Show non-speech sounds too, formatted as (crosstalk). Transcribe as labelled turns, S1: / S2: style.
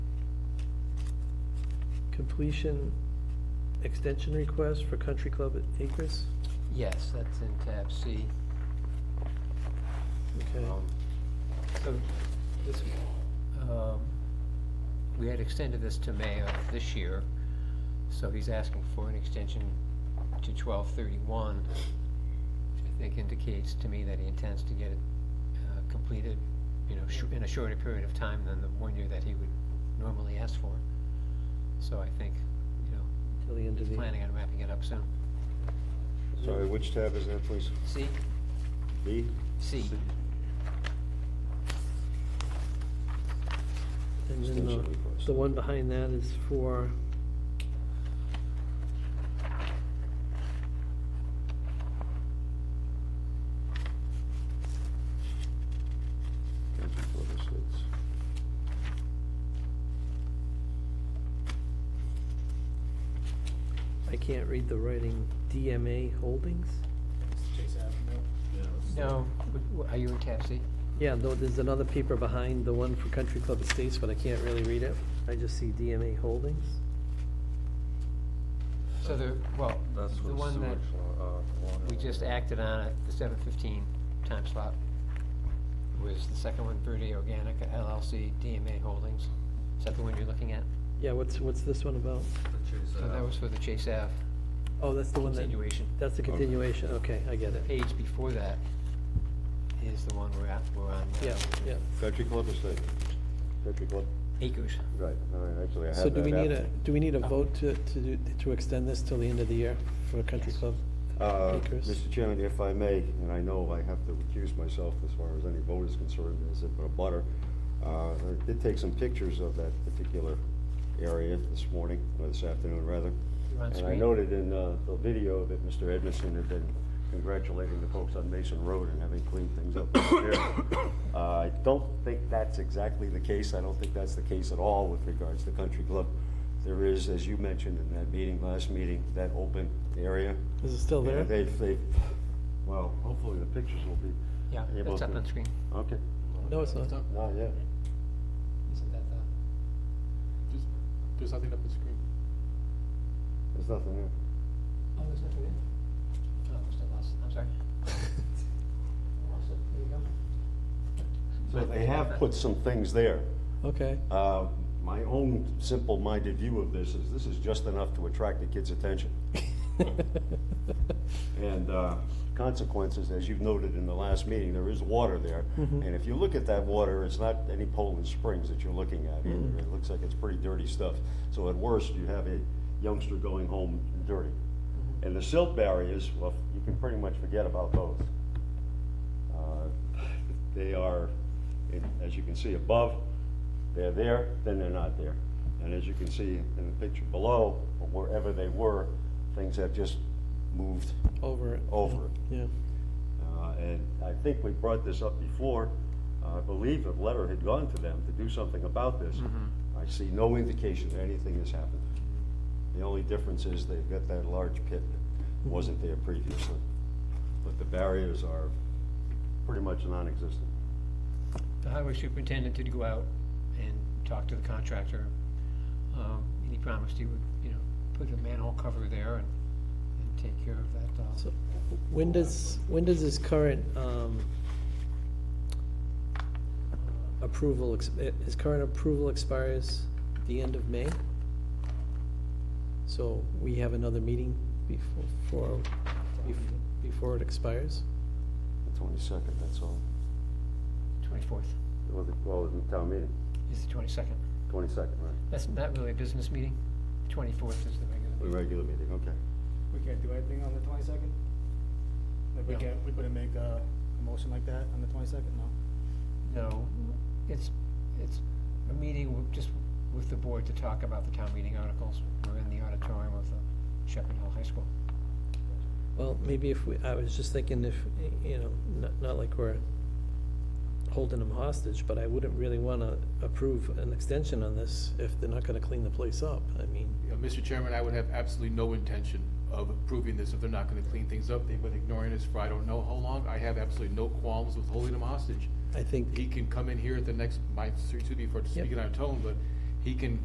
S1: completion extension request for Country Club at Acres?
S2: Yes, that's in tab C.
S1: Okay,
S2: Um, So this, um, we had extended this to May of this year, so he's asking for an extension to twelve thirty-one, which I think indicates to me that he intends to get it uh, completed, you know, shor- in a shorter period of time than the one year that he would normally ask for. So I think, you know,
S1: till the end of
S2: he's
S1: the.
S2: planning on wrapping it up soon.
S3: Sorry, which tab is that, please?
S2: C,
S3: B?
S2: C,
S1: And then
S3: Extension
S1: the,
S3: request.
S1: the one behind that is for,
S3: Country Club Estates.
S1: I can't read the writing, DMA Holdings?
S4: Chase Avenue.
S2: no, w- w- are you in tab C?
S1: Yeah, though, there's another paper behind the one for Country Club Estates, but I can't really read it. I just see DMA Holdings.
S2: So the, well,
S5: That's
S2: the
S5: what
S2: one
S5: sewage,
S2: that
S5: uh, water.
S2: we just acted on at the seven fifteen time slot was the second one, Verde Organic LLC, DMA Holdings. Is that the one you're looking at?
S1: Yeah, what's, what's this one about?
S2: So that was for the Chase Ave
S1: Oh, that's the one that,
S2: continuation.
S1: that's the continuation, okay, I get
S2: The
S1: it.
S2: page before that is the one we're at, we're on. uh, now.
S1: Yeah, yeah.
S3: Country Club Estate. Country Club,
S2: Acres.
S3: right, all right, actually, I have that.
S1: So do we need a,
S3: app.
S1: do we need a vote to, to, do- to extend this till the end of the year for Country Club?
S3: Uh,
S1: Acres.
S3: Mr. Chairman, if I may, and I know I have to recuse myself as far as any vote is concerned, as if a butter. Uh, I did take some pictures of that particular area this morning, or this afternoon, rather.
S2: You're on
S3: And I
S2: screen.
S3: noted in uh, the video that Mr. Edmondson had been congratulating the folks on Mason Road and having cleaned things up. over there. Uh, I don't think that's exactly the case. I don't think that's the case at all with regards to Country Club. There is, as you mentioned in that meeting, last meeting, that open area.
S1: Is it still there?
S3: Yeah, They've, they've, well, hopefully the pictures will be.
S2: Yeah,
S3: able
S2: it's up
S3: to-
S2: on screen.
S3: Okay.
S1: No, it's not.
S3: Not yet.
S2: Isn't that the?
S4: There's- There's nothing up on the screen.
S3: There's nothing there.
S2: Oh, there's nothing there? Oh, I must have lost, I'm (laughs) sorry. Lost it. There you go.
S3: So they have put some things there.
S1: Okay,
S3: Uh, My own simple-minded view of this is, this is just enough to attract the kids' attention. And uh, consequences, as you've noted in the last meeting, there is water there. And if you look at that water, it's not any Poland Springs that you're looking at either. It looks like it's pretty dirty stuff. So at worst, you have a youngster going home dirty. And the silt barriers, well, you can pretty much forget about those. Uh, They are, in- as you can see above, they're there, then they're not there. And as you can see in the picture below, or wherever they were, things have just moved
S1: over it.
S3: over it.
S1: Yeah,
S3: Uh, And I think we brought this up before. Uh, I believe a letter had gone to them to do something about this. I see no indication that anything has happened. The only difference is they've got that large pit that wasn't there previously. But the barriers are pretty much non-existent.
S2: The highway superintendent did go out and talk to the contractor, um, and he promised he would, you know, put a manhole cover there and, and take care of that, uh,
S1: so when does, when does this current, um, approval, ex- eh, his current approval expires the end of May? So we have another meeting before, for, bef- before it expires?
S3: The twenty-second, that's all.
S2: twenty-fourth,
S3: Well, the, well, the town meeting,
S2: is the twenty-second.
S3: twenty-second, right?
S2: That's not really a business meeting, twenty-fourth is the regular
S3: The
S2: meeting.
S3: regular meeting, okay.
S4: We can't do anything on the twenty-second? Like, we
S2: No.
S4: can't, we couldn't make a, a motion like that on the twenty-second, no?
S2: No, it's, it's a meeting with, just with the board to talk about the town meeting articles. We're in the auditorium of the Shepherd Hill High School.
S1: Well, maybe if we, I was just thinking if, you know, not, not like we're holding them hostage, but I wouldn't really wanna approve an extension on this if they're not gonna clean the place up. I mean,
S6: You know, Mr. Chairman, I would have absolutely no intention of approving this if they're not gonna clean things up. They've been ignoring us for I don't know how long. I have absolutely no qualms with holding them hostage.
S1: I think.
S6: He can come in here at the next, my, excuse me for speaking out of tone, but he can